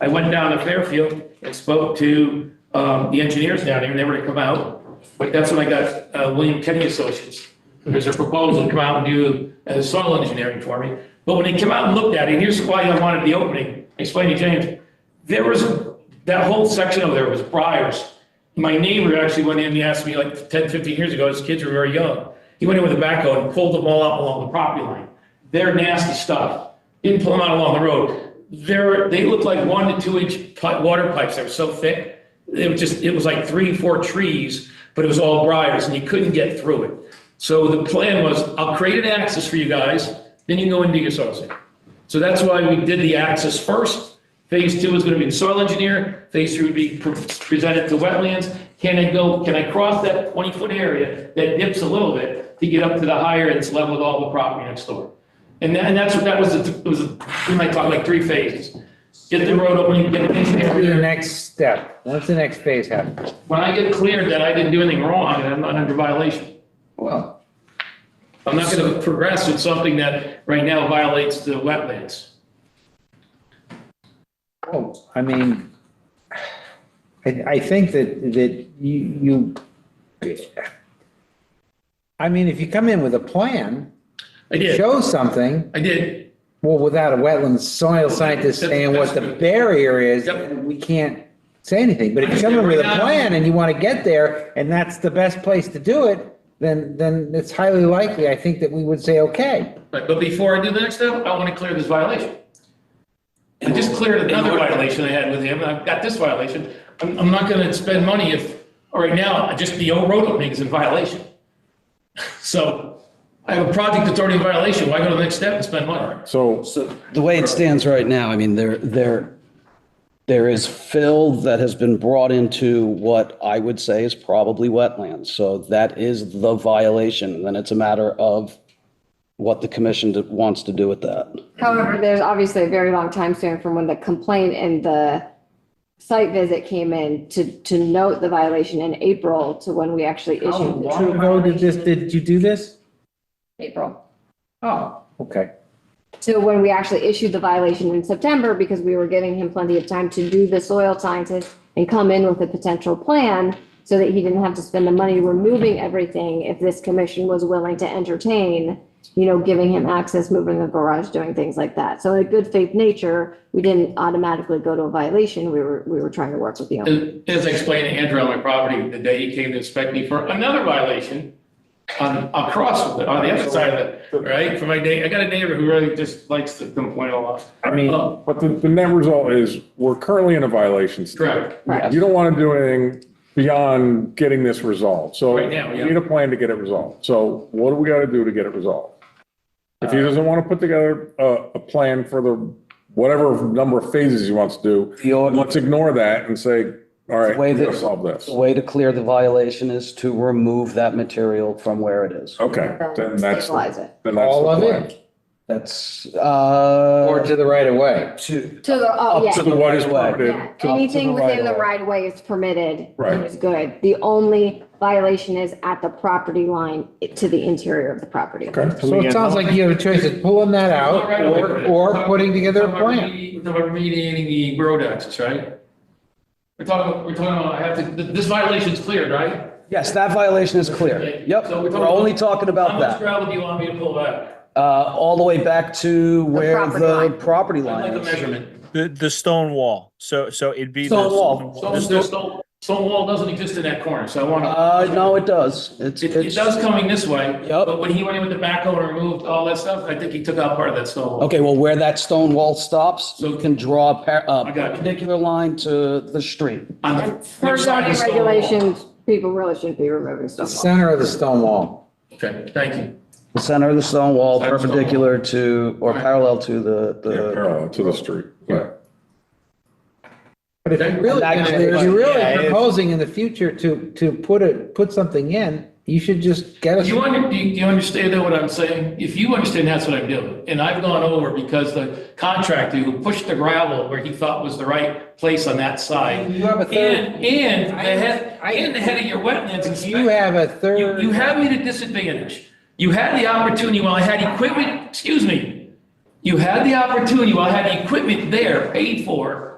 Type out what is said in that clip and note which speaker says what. Speaker 1: I went down to Fairfield and spoke to um, the engineers down there, and they were to come out. But that's when I got uh, William Kenny Associates. There's a proposal to come out and do uh, soil engineering for me. But when they came out and looked at it, here's why I wanted the opening, I explained to James. There was, that whole section over there was briars. My neighbor actually went in and asked me like 10, 15 years ago, his kids were very young. He went in with a backhoe and pulled them all up along the property line. They're nasty stuff. Didn't pull them out along the road. They're, they looked like one to two inch pi- water pipes. They were so thick. It was just, it was like three, four trees, but it was all briars and you couldn't get through it. So the plan was, I'll create an access for you guys, then you can go and do your soil sampling. So that's why we did the access first. Phase two is going to be the soil engineer. Phase three would be pre- presented to wetlands. Can I go, can I cross that 20-foot area that dips a little bit to get up to the higher that's level with all the property next door? And that, and that's what, that was, the- it was, we might talk like three phases. Get the road opening, get the
Speaker 2: What's the
Speaker 1: engineer.
Speaker 2: next step? What's the next phase happen?
Speaker 1: When I get cleared that I didn't do anything wrong and I'm not under violation,
Speaker 2: Well,
Speaker 1: I'm not going to progress with something that right now violates the wetlands.
Speaker 2: oh, I mean, I, I think that, that you, you, I mean, if you come in with a plan,
Speaker 1: I did,
Speaker 2: show something,
Speaker 1: I did.
Speaker 2: well, without a wetland soil scientist saying what the barrier is,
Speaker 1: Yep.
Speaker 2: we can't say anything. But if you come in with a plan and you want to get there, and that's the best place to do it, then, then it's highly likely, I think, that we would say, okay.
Speaker 1: Right, but before I do the next step, I want to clear this violation. I just cleared another violation I had with him, and I've got this violation. I'm, I'm not gonna spend money if, all right now, just the old road opening is in violation. So I have a project that's already in violation, why go to the next step and spend money?
Speaker 3: So,
Speaker 4: So the way it stands right now, I mean, there, there, there is fill that has been brought into what I would say is probably wetlands. So that is the violation. Then it's a matter of what the commission d- wants to do with that.
Speaker 5: However, there's obviously a very long time span from when the complaint and the site visit came in to, to note the violation in April to when we actually issued the
Speaker 2: How
Speaker 5: true
Speaker 2: ago did this,
Speaker 5: violation in
Speaker 2: did you do this?
Speaker 5: April.
Speaker 2: Oh, okay.
Speaker 5: To when we actually issued the violation in September because we were giving him plenty of time to do the soil scientist and come in with a potential plan so that he didn't have to spend the money removing everything if this commission was willing to entertain, you know, giving him access, moving the garage, doing things like that. So in a good faith nature, we didn't automatically go to a violation. We were, we were trying to work with the owner.
Speaker 1: As as I explained to Andrew on my property, the day he came to inspect me for another violation on, across, on the other side of it, right? For my day, I got a neighbor who really just likes to complain a lot.
Speaker 2: I mean,
Speaker 1: Uh,
Speaker 3: but the, the net result is we're currently in a violation. state.
Speaker 1: Correct.
Speaker 5: Correct.
Speaker 3: You don't want to do anything beyond getting this resolved. So
Speaker 1: Right now, yeah.
Speaker 3: you need a plan to get it resolved. So what do we got to do to get it resolved? If he doesn't want to put together a, a plan for the, whatever number of phases he wants to do,
Speaker 4: The only-
Speaker 3: let's ignore that and say, all right,
Speaker 4: way
Speaker 3: we're going to
Speaker 4: that-
Speaker 3: solve this.
Speaker 4: The way to clear the violation is to remove that material from where it is.
Speaker 3: Okay, then that's,
Speaker 5: Stabilize it.
Speaker 3: then that's.
Speaker 2: all
Speaker 3: the
Speaker 2: of
Speaker 3: plan.
Speaker 2: it,
Speaker 4: That's, uh.
Speaker 2: or to the right of way.
Speaker 4: to-
Speaker 5: To the, oh, yeah.
Speaker 3: To the what is
Speaker 4: Right away.
Speaker 3: permitted.
Speaker 5: Yeah,
Speaker 3: to-
Speaker 5: anything
Speaker 4: the
Speaker 5: within the
Speaker 4: right-of-way.
Speaker 5: right of way is permitted.
Speaker 3: Right.
Speaker 5: It's good. The only violation is at the property line to the interior of the property.
Speaker 3: Okay.
Speaker 2: So it sounds like you have a choice of pulling that out or, or putting together a plan.
Speaker 1: We're talking about remediating the road access, right? We're talking, we're talking about, I have to, th- this violation's cleared, right?
Speaker 4: Yes, that violation is clear. Yep,
Speaker 1: So we're talking
Speaker 4: we're only talking
Speaker 1: How
Speaker 4: about
Speaker 1: much
Speaker 4: that.
Speaker 1: gravel do you want me to pull back?
Speaker 4: Uh, all the way back to where
Speaker 5: property
Speaker 4: the
Speaker 5: line.
Speaker 4: property
Speaker 1: I'd
Speaker 4: line
Speaker 1: like a
Speaker 4: is.
Speaker 1: measurement.
Speaker 6: The, the stone wall, so, so it'd be. the
Speaker 4: Stone wall.
Speaker 6: stone
Speaker 1: Stone,
Speaker 6: the
Speaker 1: stone,
Speaker 6: stone-
Speaker 1: stone- stone wall doesn't exist in that corner, so I want to.
Speaker 4: Uh, no, it does. It's,
Speaker 1: It, it
Speaker 4: it's,
Speaker 1: does coming this way.
Speaker 4: Yep.
Speaker 1: But when he went in with the backhoe and removed all that stuff, I think he took out part of that stone wall.
Speaker 4: okay, well, where that stone wall stops, you can draw a par-
Speaker 1: I
Speaker 4: a
Speaker 1: got you.
Speaker 4: perpendicular line to the street.
Speaker 1: On the
Speaker 5: And Per
Speaker 1: left side of the
Speaker 5: zoning
Speaker 1: stone wall.
Speaker 5: regulations, people really shouldn't be removing
Speaker 2: The
Speaker 5: stuff.
Speaker 2: center of the stone wall.
Speaker 1: Okay, thank you.
Speaker 4: The center of the stone wall
Speaker 1: Center of the stone
Speaker 4: perpendicular to, or
Speaker 1: Right.
Speaker 4: parallel to the,
Speaker 3: Yeah,
Speaker 4: the,
Speaker 3: Parallel to the street. Right.
Speaker 2: But if you're really,
Speaker 4: That-
Speaker 2: gonna- if you're
Speaker 6: Yeah,
Speaker 2: really
Speaker 6: it is.
Speaker 2: proposing in the future to, to put it, put something in, you should just get
Speaker 1: Do you
Speaker 2: us,
Speaker 1: under, do you, do you understand though what I'm saying? If you understand, that's what I'm doing. And I've gone over because the contractor who pushed the gravel where he thought was the right place on that side.
Speaker 2: You have a third-
Speaker 1: And, and the head,
Speaker 2: I-
Speaker 1: and the head of your wetlands inspector.
Speaker 2: you have a
Speaker 1: You,
Speaker 2: third.
Speaker 1: you have me at a disadvantage. You had the opportunity while I had equipment, excuse me. You had the opportunity while I had the equipment there paid for